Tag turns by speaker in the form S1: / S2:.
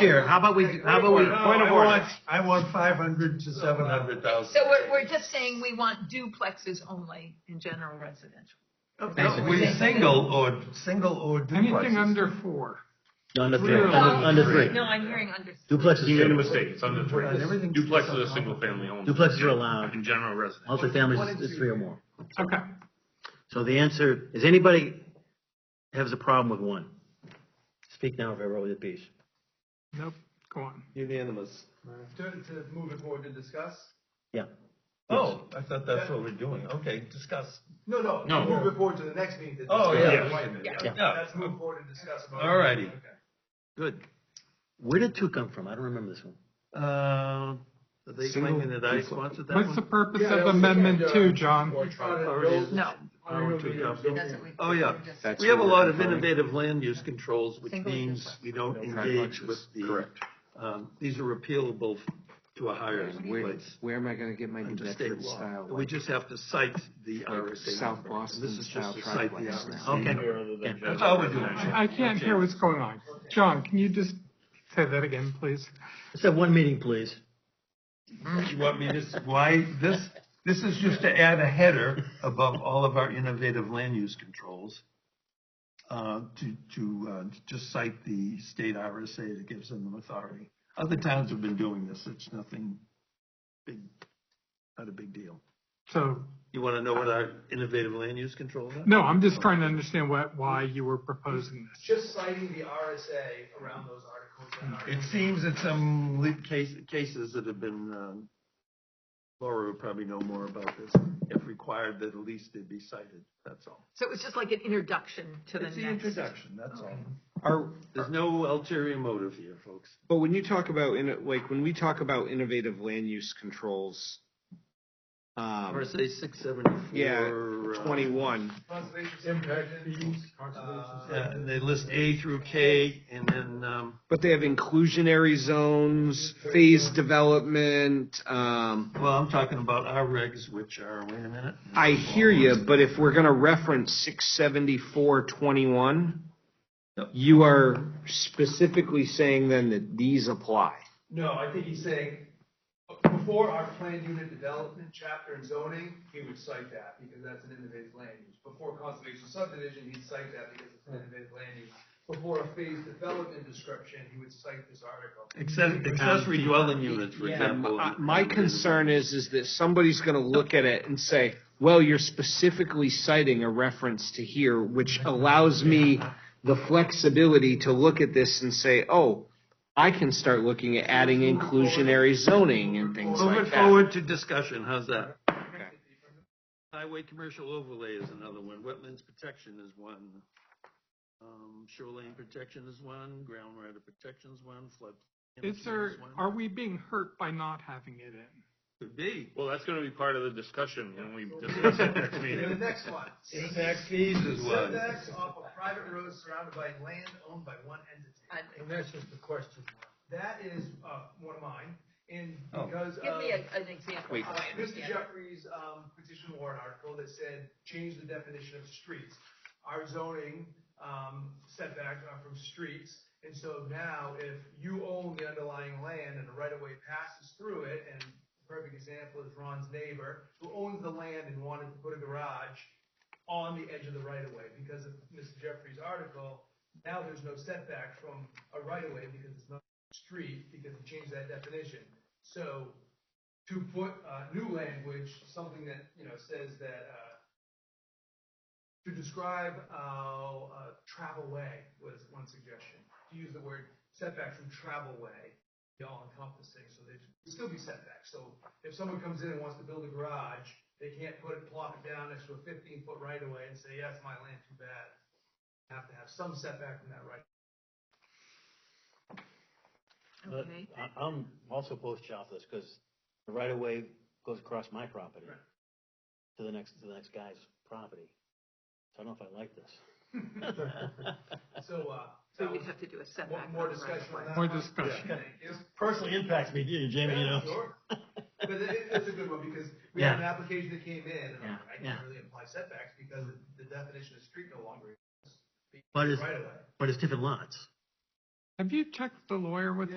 S1: Chair, how about we, how about we?
S2: Point of
S3: I
S2: order.
S3: want, I want five hundred to seven hundred thousand.
S4: So we're, we're just saying we want duplexes only in general residential.
S1: Basically.
S3: We single or, single or
S5: Anything
S3: duplexes.
S5: under four.
S6: Under three,
S5: Three.
S6: under, under three.
S4: No, I'm hearing under.
S6: Duplex is
S2: You made a
S6: single.
S2: mistake, it's under three.
S3: Right, everything's-
S2: Duplex is a single family only.
S6: Duplexes are allowed.
S2: In general residence.
S6: Multifamilies is, is three or more.
S5: Okay.
S6: So the answer, is anybody has a problem with one? Speak now if I roll your piece.
S5: Nope. Go on.
S7: Unanimous.
S8: To, to move it forward to discuss?
S6: Yeah.
S3: Oh, I thought that's what we're doing. Okay, discuss.
S8: No, no,
S2: No.
S8: to move it forward to the next meeting. to
S3: Oh,
S8: discuss.
S3: yeah.
S8: Wait a minute.
S6: Yeah.
S8: Let's move forward and discuss. about it.
S3: All righty.
S8: Okay.
S3: Good.
S6: Where did two come from? I don't remember this one.
S3: Uh, are they
S7: Single
S3: claiming that I
S7: duplex.
S3: sponsored that
S5: What's the
S3: one?
S5: purpose
S8: Yeah,
S5: of
S8: we
S5: amendment
S8: can, uh,
S5: two, John?
S8: We tried to
S3: Already
S8: build-
S3: is-
S4: No.
S8: already
S3: two
S8: built-
S3: thousand.
S4: That's what we-
S3: Oh, yeah.
S4: we're just-
S7: That's
S3: We have a
S7: what
S3: lot
S7: we're
S3: of
S7: referring-
S3: innovative land use controls, which
S4: Single
S3: means
S4: duplex.
S3: we don't engage
S7: Complexes.
S3: with the.
S7: Correct.
S3: Um, these are appealable to a higher
S7: Where,
S3: place.
S7: where am I gonna get my New
S3: under state
S7: Bedford
S3: law.
S7: style?
S3: We just have to cite the RSA.
S7: South
S3: number.
S7: Boston
S3: This is
S7: style
S3: just to cite the
S7: triplex.
S3: RSA. Okay.
S6: Okay.
S3: That's all we're doing.
S5: I I can't hear what's going on. John, can you just say that again, please?
S6: Let's have one meeting, please.
S7: Hmm.
S3: You want me to, why, this, this is just to add a header above all of our innovative land use controls. Uh, to, to, uh, just cite the state RSA that gives them authority. Other towns have been doing this, it's nothing big, not a big deal.
S5: So,
S3: You wanna know what our innovative land use controls are?
S5: no, I'm just trying to understand what, why you were proposing this.
S8: Just citing the RSA around those articles. that are-
S3: It seems that some le- case, cases that have been, um, Laura would probably know more about this, if required that at least they be cited, that's all.
S4: So it was just like an introduction to the
S3: It's the
S4: next.
S3: introduction, that's all.
S7: Are,
S3: There's no ulterior motive here, folks.
S7: but when you talk about, in- like, when we talk about innovative land use controls, um,
S3: RSA six seventy-four.
S7: yeah,
S4: uh,
S7: twenty-one,
S8: Conservation impact fees, uh,
S3: And they list A through K, and then, um,
S7: but they have inclusionary zones, phased development, um,
S3: well, I'm talking about our regs, which are, wait a minute.
S7: I hear you, but if we're gonna reference six seventy-four twenty-one,
S3: Yep.
S7: you are specifically saying then that these apply.
S8: No, I think he's saying, before our planned unit development chapter and zoning, he would cite that because that's an innovative land use. Before conservation subdivision, he'd cite that because it's an innovative land use. Before a phase development description, he would cite this article.
S3: Acce- Accessory dwelling units, for
S7: And
S3: example.
S7: my, my concern is, is that somebody's gonna look at it and say, well, you're specifically citing a reference to here, which allows me the flexibility to look at this and say, oh, I can start looking at adding inclusionary zoning and things
S3: Move
S7: like
S3: it
S7: that.
S3: forward to discussion, how's that? Highway commercial overlay is another one, wetlands protection is one, um, shoreline protection is one, groundwater protection is one, flood.
S5: Is there, are we being hurt by not having it in?
S3: Could be.
S2: Well, that's gonna be part of the discussion when we discuss it next
S8: And the
S2: meeting.
S8: next one.
S3: Impact fees is one.
S8: Setbacks off of private roads surrounded by land owned by one entity.
S4: I-
S8: that's just the question. That is, uh, one of mine, and
S3: Oh.
S8: because of.
S4: Give me a- an example.
S7: Wait.
S8: Uh,
S4: how I
S8: Mr.
S4: understand it.
S8: Jeffrey's um, petition warrant article that said, change the definition of streets. Our zoning um, setbacks are from streets, and so now if you own the underlying land and a right-of-way passes through it, and the perfect example is Ron's neighbor, who owns the land and wanted to put a garage on the edge of the right-of-way, because of Mr. Jeffrey's article, now there's no setback from a right-of-way because it's not a street, because he changed that definition. So to put uh, new language, something that you know says that uh, to describe how uh, travel way was one suggestion. To use the word setback from travel way, be all encompassing, so there'd still be setbacks. So if someone comes in and wants to build a garage, they can't put it, plop it down next to a 15 foot right of way and say, "Yeah, it's my land. Too bad." Have to have some setback from that right.
S6: But
S4: Okay.
S6: I- Uh, I'm also post shop this because the right of way goes across my property to the next, to the next guy's property. So I don't know if I like this.
S8: So, uh,
S4: So
S8: that
S4: we'd
S8: was-
S4: have to do a
S8: more,
S4: setback.
S8: more
S4: on the right of
S8: discussion on
S4: way.
S8: that.
S5: More
S8: one?
S5: discussion.
S8: Yeah, Thank you.
S6: Personally impacts me, do Jamie,
S8: Yeah, sure. But it, it- it's a good one because we had an application that came in and I'm like, I
S6: Yeah, yeah.
S8: can't really apply setbacks because the definition of street no longer. exists.
S6: But it's-
S8: Right away.
S6: But it's different lots.
S5: Have you checked the lawyer with